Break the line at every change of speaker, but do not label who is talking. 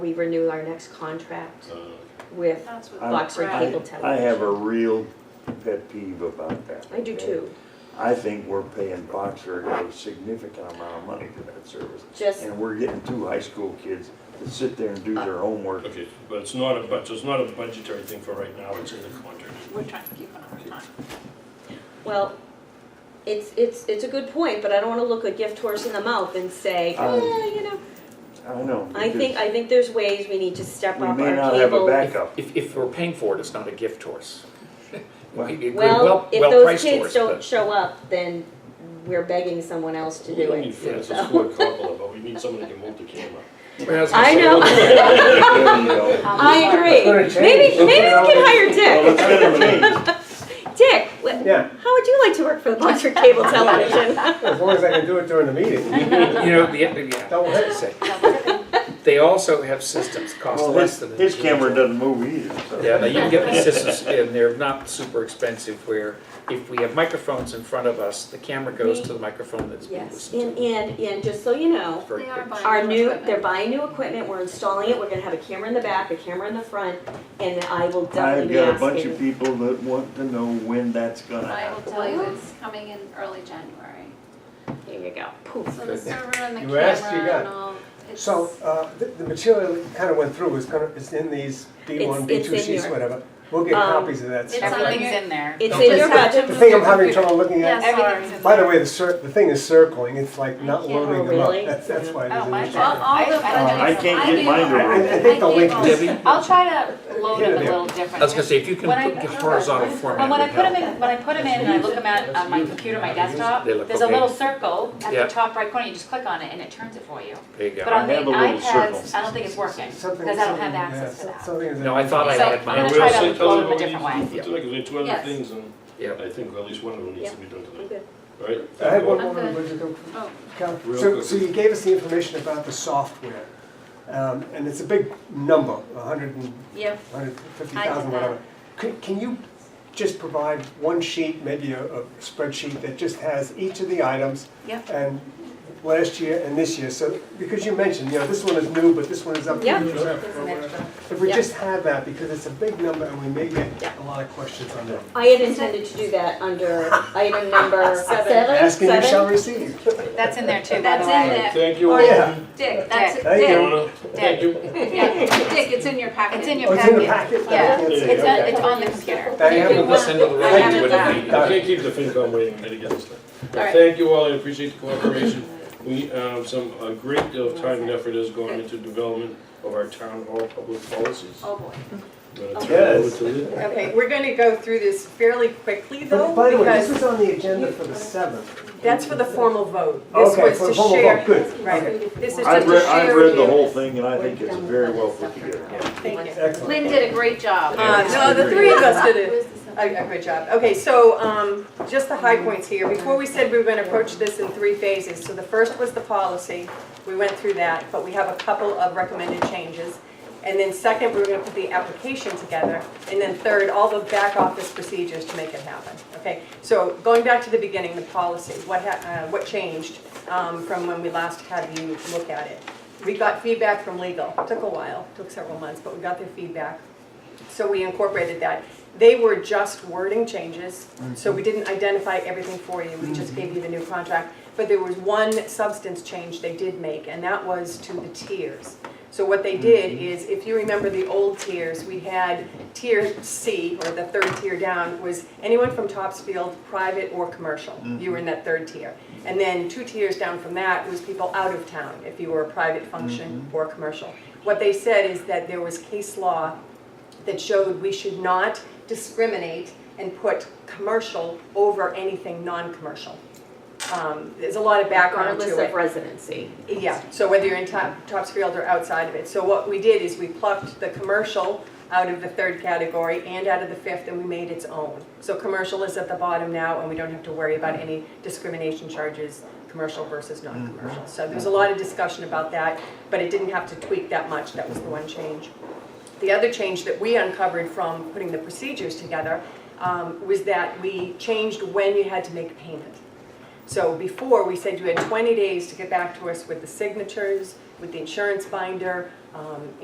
we renew our next contract
Uh,
with
That's what.
I'm-
Boxer
Right.
Cable
I
Television.
have a real pet peeve about that.
I do
okay?
too.
I think we're paying Boxer a significant amount of money for that service.
Just- Uh,
And we're getting two high school kids to sit there and do their homework.
Okay, but it's not a, but it's not a budgetary thing for right now, it's in the contract.
We're trying to keep on our time.
Well, it's, it's, it's a good point, but I don't wanna look a gift horse in the mouth and say,
Um,
eh, you know.
I know.
I think,
because
I think there's ways we need to step
We
up
may
our
not have a
cable.
backup.
If, if we're paying for it, it's not a gift horse.
Well,
It- it-
Well, if those
well-priced
kids
horse,
don't
but-
show up, then we're begging someone else to
We
do
don't need
it.
Francis
so.
Ford Coppola, but we need somebody to move the camera.
Well, was gonna
I
say,
know,
you know,
I agree. Maybe, maybe we can hire Dick. Dick, wh-
Yeah.
how would you like to work for the Boxer Cable Television?
As long as I can do it during the meeting.
You know, the, yeah, I
Double
was gonna say, they also have systems that cost
Well,
less
his,
than. an
his camera
individual.
doesn't move either, so.
Yeah, now you can get the systems, and they're not super expensive, where if we have microphones in front of us, the camera goes to the microphone that's being
Yes,
listened
and,
to.
and, and just so you know,
It's very
They are
quick.
buying
our new,
equipment.
they're buying new equipment, we're installing it, we're gonna have a camera in the back, a camera in the front, and I will
I've
definitely be
got a bunch of
asking.
people that want to know when that's gonna
I will
happen.
tell you, it's coming in early January.
Here you go, poof.
So the server and the
You asked, you
camera
got.
and all, it's,
So, uh, the, the material that kind of went through is kind of, it's in these B one, B
It's-
two
it's in
sheets,
your-
whatever. We'll get
Um,
copies of that
it's
stuff.
on your-
Everything's in there.
It's
Don't
in
just
your
have to
budget.
The
move
thing I'm
your
having
computer.
trouble looking
Yeah,
at,
Everything's
sorry.
in
by the
there.
way, the cir, the thing is circling, it's like
I
not
can't-
loading
oh,
them up.
really?
That's, that's why it
Oh,
isn't.
my
in
All,
there.
God.
all the.
I- I-
I can't get
gave
mine to
all-
roll.
I- I think the
gave
link
all-
is- Debbie?
I'll try to load them a little
I
different.
was gonna say, if you can
When I-
put horizontal
But when I
format,
put them in, when I put them in and I look them at, on my computer, my desktop,
They look
there's a
okay.
little circle at
Yeah.
the top right corner, you just click on it and it turns it for you.
there you
But
go.
on the
have a little
iPads,
circle.
I don't think it's working, because I
Something-
don't have
something-
access
yeah,
to that.
Something is.
No, I thought I
So,
had
I'm gonna
mine.
We
try
also tell them
to load them a
what we
different
need to do
way.
tonight, 'cause we have two other
Yes.
things, and
Yeah.
I think at least one of them needs to be done
I'm
tonight,
good.
all right?
I had one
I'm
more,
good.
would you go?
Oh,
Cal?
Real
So,
quick.
so you gave us the information about the software, um, and it's a big number, a hundred and
yeah.
150,000,
I did that.
whatever. Can, can you just provide one sheet, maybe a, a spreadsheet that just has each of the items?
Yep.
And last year and this year, so, because you mentioned, you know, this one is new, but this one is up. to
Yeah.
you. If we
Yeah.
just had that, because it's a big number and we may get
Yeah.
a lot of questions on that.
I had intended to do that under item number seven.
Asking you shall
Seven?
receive.
That's in there too, by
That's
the
in
way.
there.
Thank you.
Oh,
all.
yeah.
Dick, that's, it.
Thank
Thank you,
Dick,
Anna. Thank you.
Dick, it's in your packet.
It's in
Oh,
your
it's in the
packet.
packet?
Yeah.
It's
It's, on- it's on the computer.
Diane,
This end of the road
I have it
would
back.
be-
I can't keep the FinCom waiting, I gotta get this done.
All right.
Thank you all, I appreciate the cooperation. We, um, some, a great deal of time and effort has gone into development of our town hall public policies.
Oh, boy.
I'm gonna turn it over
Yes.
to Lynn.
Okay, we're gonna go through this fairly quickly though,
But By the way, this
because
is on the agenda for the 7th.
that's for the formal vote. This
Okay,
was
for the
to
formal
share.
vote, good.
Right, this is
I've
just to
read, I've
share
read
with
the
you.
whole thing and I think it's very well put together.
Thank you.
Excellent.
Lynn did a great job.
Uh, no, the three of us did it. A, a good Oh, job. Okay, so, um, just the high points here. Before we said we were gonna approach this in three phases. So the first was the policy. We went through that, but we have a couple of recommended changes. And then second, we were gonna put the application together. And then third, all the back office procedures to make it happen, okay? So going back to the beginning, the policy, what ha, uh, what changed, um, from when we last had you look at it? We got feedback from legal. Took a while, took several months, but we got their feedback. So we incorporated that. They were just wording changes, so we didn't identify everything for you, we just gave you the new contract. But there was one substance change they did make, and that was to the tiers. So what they did is, if you remember the old tiers, we had tier C, or the third tier down, was anyone from Topsfield, private or commercial, you were in that third tier. And then two tiers down from that was people out of town, if you were a private function or commercial. What they said is that there was case law that showed we should not discriminate and put commercial over anything non-commercial. Um, There's a lot of background to it.
Regardless of residency.
Yeah, so whether you're in Top- Topsfield or outside of it. So what we did is we plucked the commercial out of the third category and out of the fifth, and we made its own. So commercial is at the bottom now, and we don't have to worry about any discrimination charges, commercial versus non-commercial. So there's a lot of discussion about that, but it didn't have to tweak that much, that was the one change. The other change that we uncovered from putting the procedures together um, was that we changed when you had to make a payment. So before, we said you had 20 days to get back to us with the signatures, with the insurance binder, um,